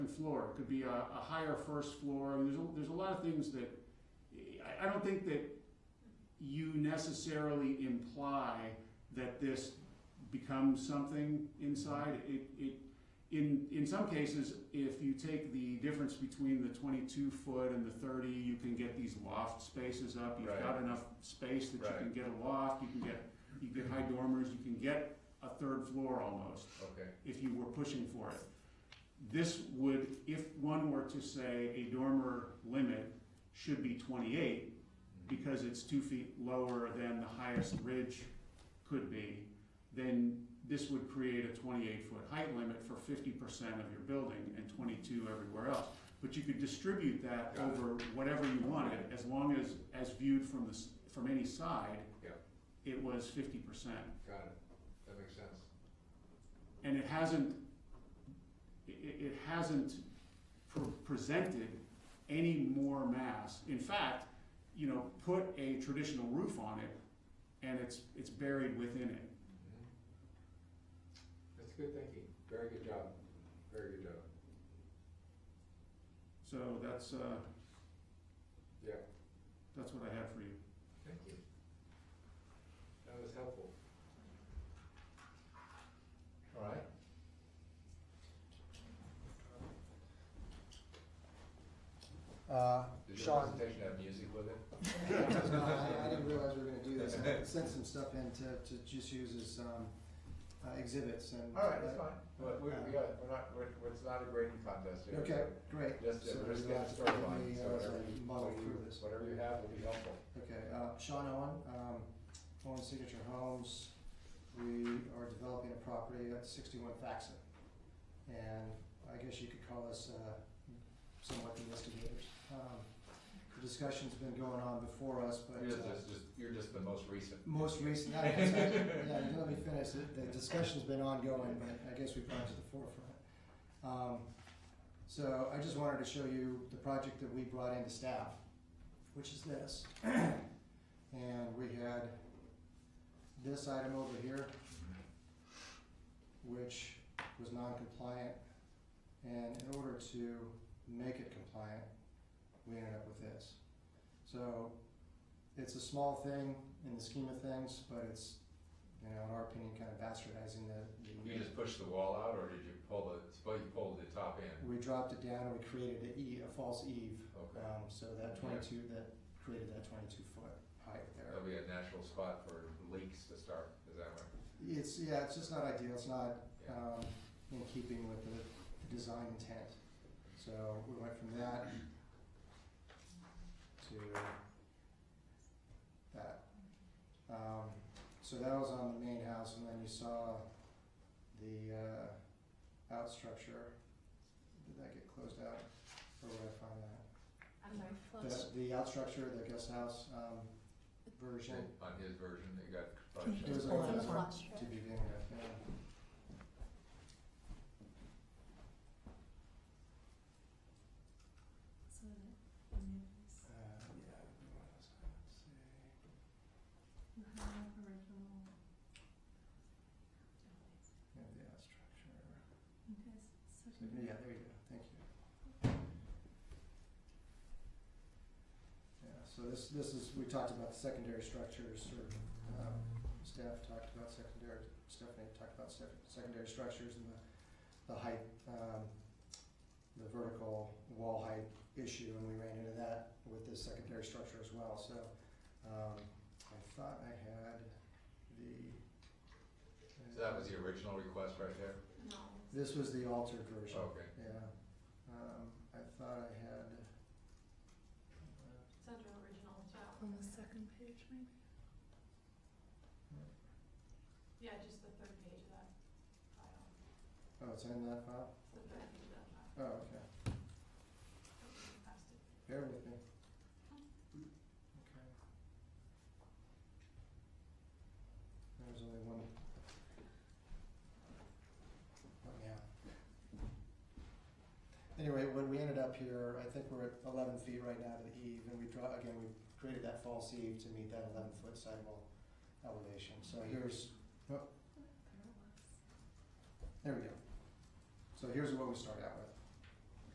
floor. It could be a, a higher first floor. I mean, there's a, there's a lot of things that I, I don't think that you necessarily imply that this becomes something inside. It, it in in some cases, if you take the difference between the 22 foot and the 30, you can get these loft spaces up. You've Right. got enough space that Right. you can get a loft. You can get you can get high dormers. You can get a third floor almost Okay, if you were pushing for it. This would, if one were to say a dormer limit should be twenty-eight, because it's two feet lower than the highest ridge could be, then this would create a twenty-eight foot height limit for fifty percent of your building and twenty-two everywhere else. But you could distribute that Got it. over whatever you wanted, as long as, as viewed from the, s- from any side. Yeah. It was fifty percent. got it, that makes sense. and it hasn't, it, it hasn't pre- presented any more mass. In fact, you know, put a traditional roof on it, and it's, it's buried within it. Mhm. That's good thinking, very good job, very good job, So that's, uh, yeah, that's what I had for you. thank you. That was helpful. All right. Uh, Did your Sean, presentation have music with it? no, I I didn't realize we were gonna do this, I sent some stuff in to, to just use as, um, uh, exhibits and. All right, that's fine, uh, but we, we got, we're not, we're, we're- it's not a grading contest here. Okay, great. Just, So uh, we're just getting we'll have to started on, quickly, so uh, whatever you, Muddle through this. whatever you have will be helpful. Okay, uh, Sean Owen, um, Owen Signature Homes, we are developing a property at sixty-one Faxon. And I guess you could call us, uh, somewhat investigators. Um, the discussion's been going on before us, but. You're uh, just, just, you're just the most recent. most recent, yeah, you let me finish, The- the discussion's been ongoing, but I guess we brought it to the forefront. Um, so I just wanted to show you the project that we brought into staff, which is this. And we had this item over here, which was non-compliant. And in order to make it compliant, we ended up with this. So it's a small thing in the scheme of things, but it's, you know, in our opinion, kind of bastardizing the. You just pushed the wall out, or did you pull the, suppose you pulled the top end? We dropped it down and we created a E, a false eve, Okay, um, so that twenty-two, that created that twenty-two foot height there. that'll be a natural spot for leaks to start, is that right? It's, yeah, it's just not ideal, it's not, Yeah. um, in keeping with the, the design intent. So we went from that to that. Um, so that was on the main house, and then you saw the, uh, out structure. Did that get closed out, or would I find that? I'm sorry, floats. The, the out structure, the guest house, um, version On his version, it got crushed. There's Floats a- on the flush, to right? begin with, yeah. So the- the new is- Uh, yeah, what else can I say? you have original- Yeah, the ad structure. You guys such So, a- yeah, there you go, thank you. Yeah, so this, this is, we talked about secondary structures, or, um, staff talked about secondary, Stephanie talked about sec- secondary structures and the, the height, um, the vertical wall height issue, and we ran into that with this secondary structure as well, so, um, I thought I had the. So that was the original request right there? No. This was the altered version. Okay, Yeah, um, I thought I had. uh, It's under original as well. On the second page, maybe? Yeah, just the third page of that file, Oh, it's in that file? the third page of that file. Oh, okay, Past it. bear with me. Okay. There was only one. Help me out. Oh, Anyway, when we ended up here, I think we're at eleven feet right now to the eve, and we draw, again, we created that false eve to meet that eleven foot sidewall elevation, so here's There it was. There we go. So here's what we start out with.